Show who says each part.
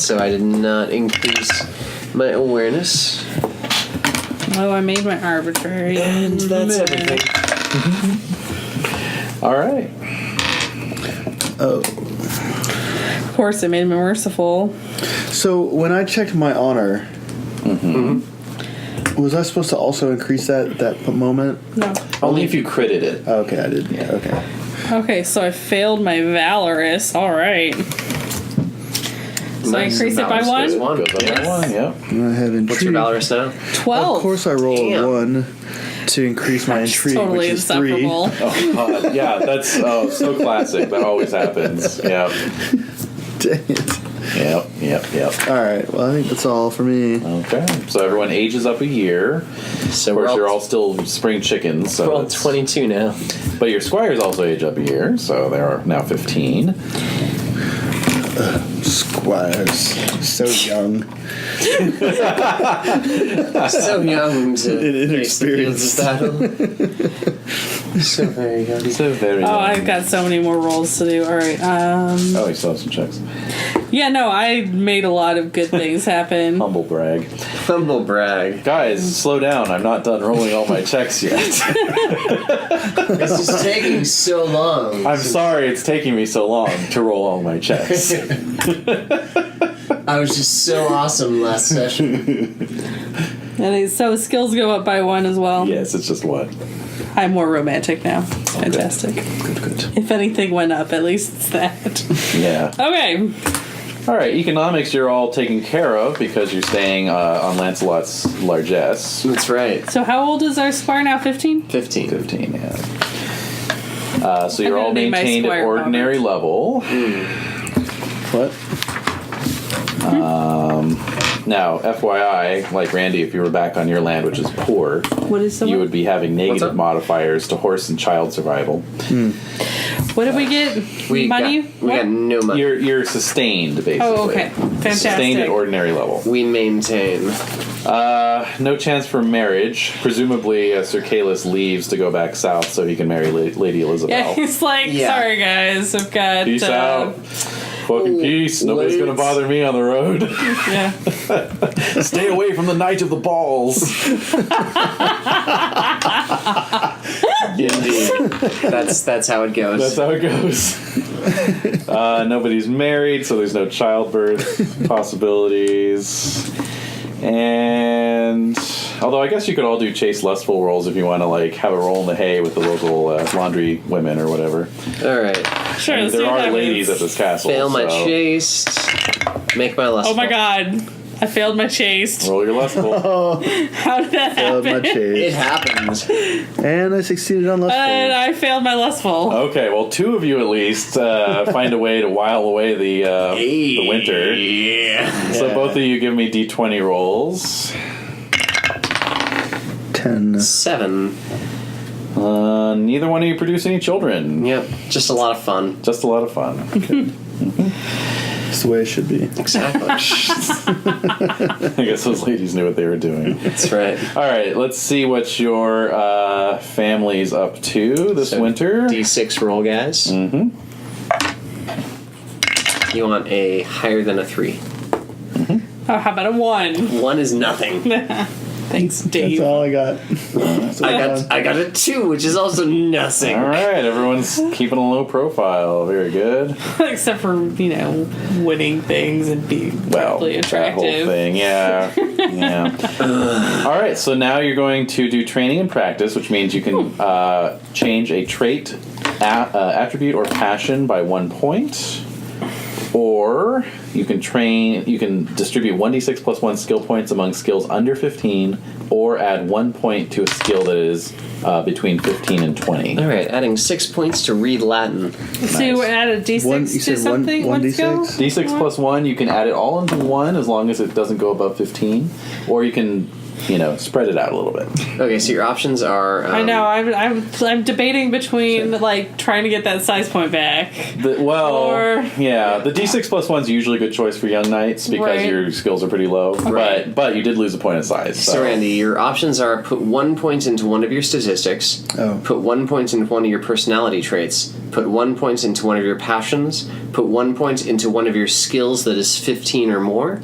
Speaker 1: so I did not increase my awareness.
Speaker 2: Oh, I made my arbitrary.
Speaker 1: And that's Mm-hmm. everything. All right.
Speaker 3: Oh,
Speaker 2: Of course, it made me merciful.
Speaker 3: So when I checked my honor, was I supposed to also increase that that p- moment?
Speaker 2: No.
Speaker 4: Only if you critted it.
Speaker 3: Oh, okay, I did. Yeah. Okay.
Speaker 2: Okay, so I failed my valorous. All right. So I
Speaker 1: Nice.
Speaker 2: increase it by
Speaker 1: Valorous goes
Speaker 2: one.
Speaker 1: one.
Speaker 4: Goes up by
Speaker 1: Yes.
Speaker 4: one, yep.
Speaker 3: And I have intrigue.
Speaker 1: What's your valorous now?
Speaker 2: Twelve.
Speaker 3: Of course, I roll
Speaker 1: Damn.
Speaker 3: a one to increase my intrigue,
Speaker 2: totally
Speaker 3: which is three.
Speaker 2: inseparable.
Speaker 4: Oh, God. yeah, that's oh, so classic. That always happens. Yep.
Speaker 3: Dang it!
Speaker 4: Yep, yep, yep.
Speaker 3: All right. Well, I think that's all for me.
Speaker 4: Okay. So everyone ages up a year.
Speaker 1: So
Speaker 4: Of
Speaker 1: we're
Speaker 4: course,
Speaker 1: all,
Speaker 4: you're all still spring chickens. So
Speaker 1: we're all
Speaker 4: that's-
Speaker 1: 22 now.
Speaker 4: But your squires also age up a year, so they are now 15.
Speaker 3: Squires, so young.
Speaker 1: so young to
Speaker 3: And
Speaker 1: face the fields of battle. so very young.
Speaker 4: So very.
Speaker 2: Oh, I've got so many more rolls to do. All right. Um,
Speaker 4: Oh, you still have some checks.
Speaker 2: yeah, no, I made a lot of good things happen.
Speaker 4: Humble brag.
Speaker 1: Humble brag.
Speaker 4: Guys, slow down. I'm not done rolling all my checks yet.
Speaker 1: This is taking so long.
Speaker 4: I'm sorry it's taking me so long to roll all my checks.
Speaker 1: I was just so awesome last session.
Speaker 2: And it- so skills go up by one as well.
Speaker 4: yes, it's just one.
Speaker 2: I'm more romantic now. It's fantastic.
Speaker 4: Good, good.
Speaker 2: If anything went up, at least it's that.
Speaker 4: Yeah.
Speaker 2: okay.
Speaker 4: All right, economics you're all taken care of because you're staying uh, on Lancelot's largesse.
Speaker 1: That's right.
Speaker 2: So how old is our squire now? 15?
Speaker 1: 15.
Speaker 4: 15, yeah. Uh, so you're
Speaker 2: gonna
Speaker 4: all
Speaker 2: name my
Speaker 4: maintained at
Speaker 2: squire Robert.
Speaker 4: ordinary level.
Speaker 3: What?
Speaker 4: Now, FYI, like Randy, if you were back on your land, which is poor,
Speaker 2: What is the
Speaker 4: you would be having negative
Speaker 1: up?
Speaker 4: modifiers to horse and child survival.
Speaker 2: What
Speaker 4: Uh,
Speaker 2: did we get?
Speaker 1: We
Speaker 2: Money?
Speaker 1: Got, we
Speaker 2: What?
Speaker 1: got no money.
Speaker 4: You're you're sustained basically.
Speaker 2: Oh, okay.
Speaker 4: Sustained
Speaker 2: Fantastic.
Speaker 4: at ordinary level.
Speaker 1: we maintain.
Speaker 4: Uh, no chance for marriage. Presumably, uh, Sir Calus leaves to go back south so he can marry La- Lady Elizabeth.
Speaker 2: yeah, he's like,
Speaker 1: Yeah.
Speaker 2: sorry guys, I've got.
Speaker 4: Peace
Speaker 2: uh,
Speaker 4: out. Fucking peace. Nobody's
Speaker 1: wait.
Speaker 4: gonna bother me on the road.
Speaker 2: Yeah.
Speaker 4: Stay away from the Knight of the Balls.
Speaker 1: Indeed. that's that's how it goes.
Speaker 4: That's how it goes. uh, nobody's married, so there's no childbirth possibilities. And although I guess you could all do chase lustful rolls if you want to like have a roll in the hay with the local uh, laundry women or whatever.
Speaker 1: All right.
Speaker 2: Sure. let's
Speaker 4: there
Speaker 2: do
Speaker 4: are
Speaker 2: that.
Speaker 4: ladies at this castle.
Speaker 1: Fail my
Speaker 4: so
Speaker 1: chase. Make my last.
Speaker 2: Oh my
Speaker 1: roll.
Speaker 2: god. I failed my chase.
Speaker 4: Roll your lustful.
Speaker 2: How did that
Speaker 3: Uh,
Speaker 2: happen?
Speaker 3: my
Speaker 1: It
Speaker 3: chase.
Speaker 1: happened.
Speaker 3: And I succeeded on left.
Speaker 2: And I failed my lustful.
Speaker 4: okay, well, two of you at least uh, find a way to while away the uh, the winter.
Speaker 1: Yeah.
Speaker 4: So both of you give me d20 rolls.
Speaker 3: ten.
Speaker 1: Seven.
Speaker 4: Uh, neither one of you produce any children.
Speaker 1: Yep. Just a lot of fun.
Speaker 4: Just a lot of fun.
Speaker 3: That's the way it should be.
Speaker 1: Exactly.
Speaker 4: I guess those ladies knew what they were doing.
Speaker 1: that's right.
Speaker 4: All right, let's see what your uh, family's up to this
Speaker 1: So,
Speaker 4: winter.
Speaker 1: D6 roll, guys. Mm-hmm. You want a higher than a three.
Speaker 2: Oh, how about a one?
Speaker 1: One is nothing.
Speaker 2: Thanks,
Speaker 3: That's
Speaker 2: Dave.
Speaker 3: all I got. That's all
Speaker 1: I
Speaker 3: I
Speaker 1: got I got a two, which is also nothing.
Speaker 4: All right, everyone's keeping a low profile. Very good.
Speaker 2: Except for, you know, winning things and being
Speaker 4: Well,
Speaker 2: really
Speaker 4: that whole
Speaker 2: attractive.
Speaker 4: thing, yeah, yeah. All right, so now you're going to do training and practice, which means you can uh, change a trait, a- uh, attribute, or passion by one point, or you can train. You can distribute one d6 plus one skill points among skills under 15, or add one point to a skill that is uh, between 15 and 20.
Speaker 1: All right, adding six points to read Latin.
Speaker 2: So you
Speaker 4: Nice.
Speaker 2: add a d6
Speaker 3: One- you
Speaker 2: to
Speaker 3: said one-
Speaker 2: something?
Speaker 3: one
Speaker 2: Let's go.
Speaker 3: D6?
Speaker 4: D6 plus one, you can add it all into one as long as it doesn't go above 15, or you can you know, spread it out a little bit.
Speaker 1: Okay, so your options are. Um,
Speaker 2: I know. I'm, I'm I'm debating between like trying to get that size point back.
Speaker 4: The, well,
Speaker 2: Or-
Speaker 4: yeah, the D6 plus one's usually a good choice for young knights because
Speaker 2: Right.
Speaker 4: your skills are pretty low. But but you did lose a point of size. So,
Speaker 1: So, Randy, your options are put one point into one of your statistics,
Speaker 3: Oh.
Speaker 1: put one point into one of your personality traits, put one point into one of your passions, put one point into one of your skills that is 15 or more,